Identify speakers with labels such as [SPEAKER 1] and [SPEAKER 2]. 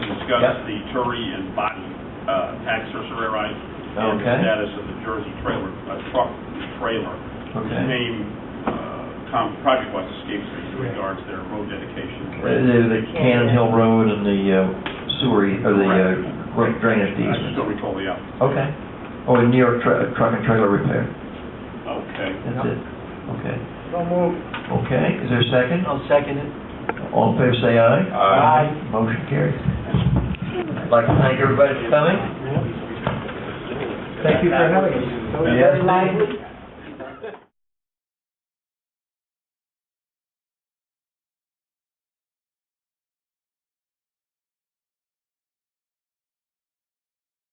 [SPEAKER 1] discuss
[SPEAKER 2] Yep.
[SPEAKER 1] the Turi and Body uh, tax surcharge and the
[SPEAKER 2] Okay.
[SPEAKER 1] status of the Jersey trailer, uh, truck trailer. His
[SPEAKER 2] Okay.
[SPEAKER 1] name, uh, Tom, project-wise escapes me in regards to their road dedication.
[SPEAKER 2] Uh, The the Cannon Hill Road and the uh, sewer, or the uh, great drainage
[SPEAKER 1] I just
[SPEAKER 2] easement.
[SPEAKER 1] don't recall the outfit.
[SPEAKER 2] Okay. Oh, and New York Tru- Truck and Trailer Repair.
[SPEAKER 1] Okay.
[SPEAKER 2] That's it. Okay.
[SPEAKER 3] So moved.
[SPEAKER 2] Okay, is there a second?
[SPEAKER 4] I'll second it.
[SPEAKER 2] All in favor, say aye.
[SPEAKER 4] Aye.
[SPEAKER 2] Motion carries. I'd like to thank everybody for coming.
[SPEAKER 3] Thank you for having us. That was
[SPEAKER 2] Yes.
[SPEAKER 3] very lively.